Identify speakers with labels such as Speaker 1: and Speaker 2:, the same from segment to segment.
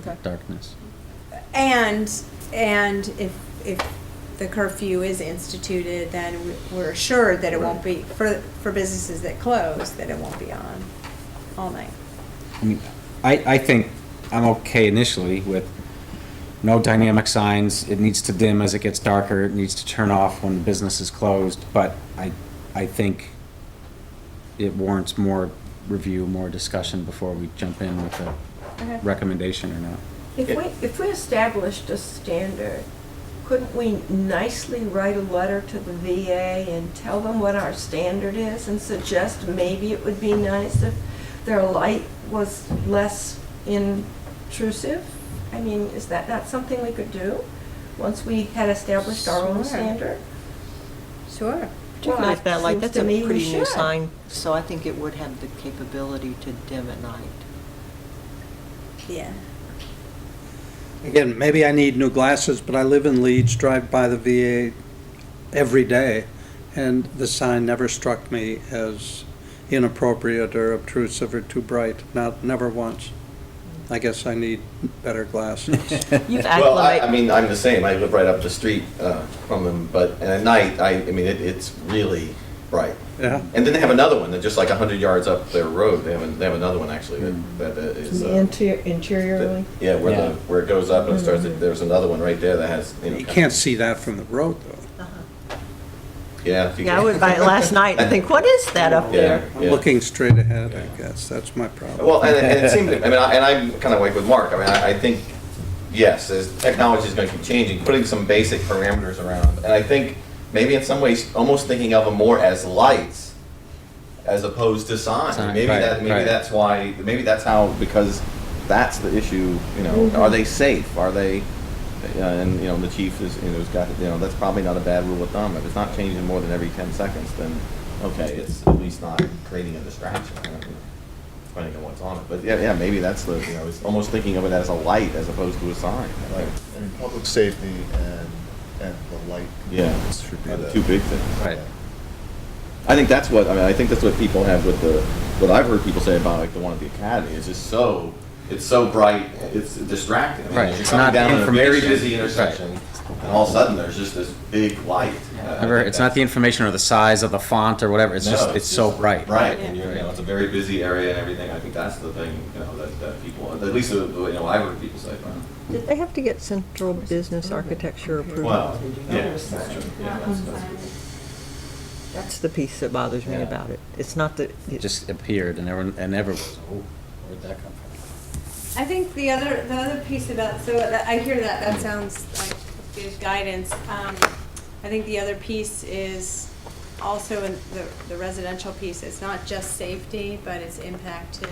Speaker 1: Okay.
Speaker 2: darkness.
Speaker 3: And, and if, if the curfew is instituted, then w- we're assured that it won't be, for, for businesses that close, that it won't be on all night.
Speaker 2: I mean, I, I think I'm okay initially with no dynamic signs, it needs to dim as it gets darker, it needs to turn off when business is closed, but I, I think it warrants more review, more discussion before we jump in with a
Speaker 3: Okay.
Speaker 2: recommendation or not.
Speaker 4: If we, if we established a standard, couldn't we nicely write a letter to the VA and tell them what our standard is and suggest maybe it would be nice if their light was less intrusive? I mean, is that not something we could do, once we had established our own
Speaker 3: Sure.
Speaker 4: standard?
Speaker 3: Sure.
Speaker 4: Well,
Speaker 5: Particularly if that,
Speaker 4: it
Speaker 5: like,
Speaker 4: seems
Speaker 5: that's
Speaker 4: to
Speaker 5: a
Speaker 4: me we
Speaker 5: pretty new
Speaker 4: should.
Speaker 5: sign, so I think it would have the capability to dim at night.
Speaker 3: Yeah.
Speaker 6: Again, maybe I need new glasses, but I live in Leeds, drive by the VA every day, and the sign never struck me as inappropriate or obtrusive or too bright, not, never once. I guess I need better glasses.
Speaker 5: You've
Speaker 7: Well, I, I
Speaker 5: acclimated,
Speaker 7: mean, I'm the same, I live right up the street uh, from them, but at night, I, I mean, it, it's really bright.
Speaker 6: Yeah.
Speaker 7: And then they have another one, that just like hundred yards up their road, they have, an- they have another one actually, that, that is. uh,
Speaker 4: interiorly?
Speaker 7: that- Yeah, where
Speaker 2: Yeah.
Speaker 7: the, where it goes up and starts,
Speaker 5: Hmm.
Speaker 7: there's another one right there that has, you know.
Speaker 6: You
Speaker 7: kind of-
Speaker 6: can't see that from the road,
Speaker 4: Uh-huh.
Speaker 6: though.
Speaker 7: Yeah. you
Speaker 5: yeah, I
Speaker 7: can.
Speaker 5: went by it last night and think, what is that up
Speaker 7: Yeah,
Speaker 5: there?
Speaker 6: I'm
Speaker 7: yeah.
Speaker 6: looking straight ahead, I guess, that's my problem.
Speaker 7: Well, and, and it seemed, to- I mean, I- and I'm kind of like with Mark, I mean, I, I think, yes, as technology is going to keep changing, putting some basic parameters around, and I think maybe in some ways, almost thinking of them more as lights as opposed to signs.
Speaker 2: Sign,
Speaker 7: Maybe
Speaker 2: right,
Speaker 7: that, maybe
Speaker 2: right.
Speaker 7: that's why, maybe that's how, because that's the issue, you know, are they safe? Are they, uh, and, you know, the chief is, you know, has got, you know, that's probably not a bad rule of thumb. If it's not changing more than every ten seconds, then, okay, it's at least not creating a distraction. I don't know depending on what's on it. But yeah, yeah, maybe that's the, you know, it's almost thinking of it as a light as opposed to a sign. Like,
Speaker 8: Right, I mean, public safety and, and the light.
Speaker 7: Yeah.
Speaker 8: components Should be
Speaker 7: are
Speaker 8: the.
Speaker 7: the uh, two big things.
Speaker 2: Right.
Speaker 7: I think that's what, I mean, I think that's what people have with the, what I've heard people say about like the one at the academy. It's just so, it's so bright, it's distracting. I mean,
Speaker 2: Right,
Speaker 7: You're
Speaker 2: it's
Speaker 7: coming
Speaker 2: not
Speaker 7: down in a very
Speaker 2: information.
Speaker 7: busy
Speaker 2: Right.
Speaker 7: intersection and all of a sudden there's just this big light. Uh, I
Speaker 2: However,
Speaker 7: think
Speaker 2: it's not
Speaker 7: that's-
Speaker 2: the information or the size of the font or whatever, it's
Speaker 7: No,
Speaker 2: just, it's so
Speaker 7: just
Speaker 2: bright.
Speaker 7: Right, and you're, you know, it's a very busy area and everything. I think that's the thing, you know, that, that people, at least, uh, you know, I've heard people say, well,
Speaker 5: Did they have to get central business architecture approval?
Speaker 7: Well, yeah, that's true. Yeah, that's, that's,
Speaker 5: That's the piece that bothers me
Speaker 2: Yeah.
Speaker 5: about it. It's not that,
Speaker 2: It just appeared and everyone, and everyone was, oh, where'd that come from?
Speaker 3: I think the other, the other piece about, so that- I hear that, that sounds like good guidance. Um, I think the other piece is also in the, the residential piece, it's not just safety, but it's impact to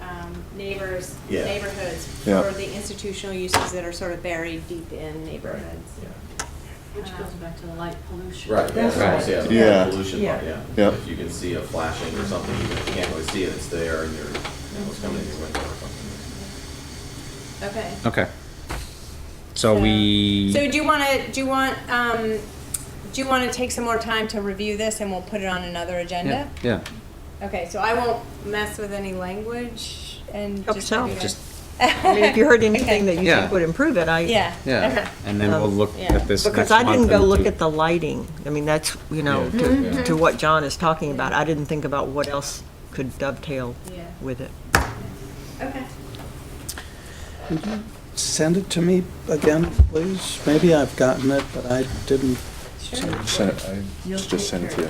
Speaker 3: um, neighbors,
Speaker 7: Yeah.
Speaker 3: neighborhoods,
Speaker 7: Yeah.
Speaker 3: for the institutional uses that are sort of buried deep in neighborhoods. Um,
Speaker 7: yeah.
Speaker 9: Which goes back to the light pollution.
Speaker 7: Right, yeah,
Speaker 4: That's
Speaker 7: that's
Speaker 4: right.
Speaker 7: right.
Speaker 8: Yeah.
Speaker 7: Pollution, part, yeah.
Speaker 8: Yeah.
Speaker 7: If you can see a flashing or something, even if you can't really see it, it's there and you're, you know, it's coming in your window or something.
Speaker 3: Okay.
Speaker 2: Okay. So we.
Speaker 3: So do you want to, do you want, um, do you want to take some more time to review this and we'll put it on another agenda?
Speaker 2: Yeah, yeah.
Speaker 3: Okay, so I won't mess with any language and
Speaker 5: Help
Speaker 3: just.
Speaker 5: yourself.
Speaker 3: have you guys-
Speaker 5: I mean, if you heard anything that you
Speaker 2: Yeah.
Speaker 5: think would improve it, I.
Speaker 3: Yeah.
Speaker 2: Yeah,
Speaker 3: Okay.
Speaker 2: and then we'll
Speaker 5: Um,
Speaker 2: look
Speaker 3: yeah.
Speaker 2: at this next
Speaker 5: Because I
Speaker 2: month
Speaker 5: didn't go
Speaker 2: and
Speaker 5: look
Speaker 2: do-
Speaker 5: at the lighting. I mean, that's, you know,
Speaker 2: Yeah.
Speaker 5: to, to what John is talking about. I didn't think about what else could dovetail
Speaker 3: Yeah.
Speaker 5: with it.
Speaker 3: Okay.
Speaker 6: Send it to me again, please. Maybe I've gotten it, but I didn't.
Speaker 3: Sure.
Speaker 8: Send it, I just send it to you.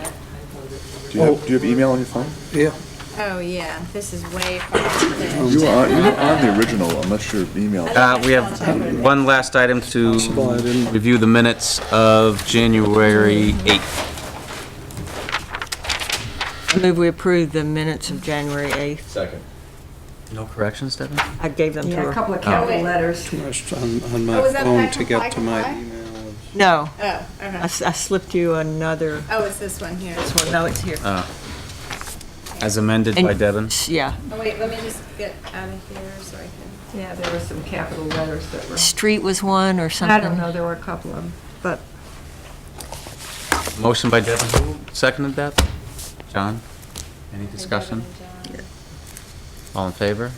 Speaker 8: Do you
Speaker 6: Oh.
Speaker 8: have, do you have email on your phone?
Speaker 6: Yeah,
Speaker 3: Oh, yeah, this is way far up there.
Speaker 8: Oh, You are, you are on the original unless your email.
Speaker 2: Uh, we have one last item to
Speaker 6: Possible I didn't-
Speaker 2: review the minutes of January 8th.
Speaker 5: I move we approve the minutes of January 8th.
Speaker 7: Second.
Speaker 2: No corrections, Devin?
Speaker 5: I gave them to
Speaker 4: Yeah, a
Speaker 5: her.
Speaker 4: couple of capital
Speaker 3: Oh.
Speaker 4: letters.
Speaker 6: rushed on, on my
Speaker 3: Oh, was that
Speaker 6: phone
Speaker 3: back
Speaker 6: to
Speaker 3: from
Speaker 6: get to my
Speaker 3: Firefly?
Speaker 6: emails.
Speaker 5: No,
Speaker 3: Oh,
Speaker 5: I
Speaker 3: okay.
Speaker 5: s- I slipped you another,
Speaker 3: Oh, it's this one here.
Speaker 5: this one, no, it's here.
Speaker 2: Uh, As amended by
Speaker 5: And-
Speaker 2: Devin?
Speaker 5: Yeah.
Speaker 3: Oh, wait, let me just get out of here so I can.
Speaker 4: Yeah, there were some capital letters that were,
Speaker 5: Street was one or
Speaker 4: I don't know, there were a couple of them, but
Speaker 2: Motion by Devin, who seconded that? John? Any discussion? All in favor?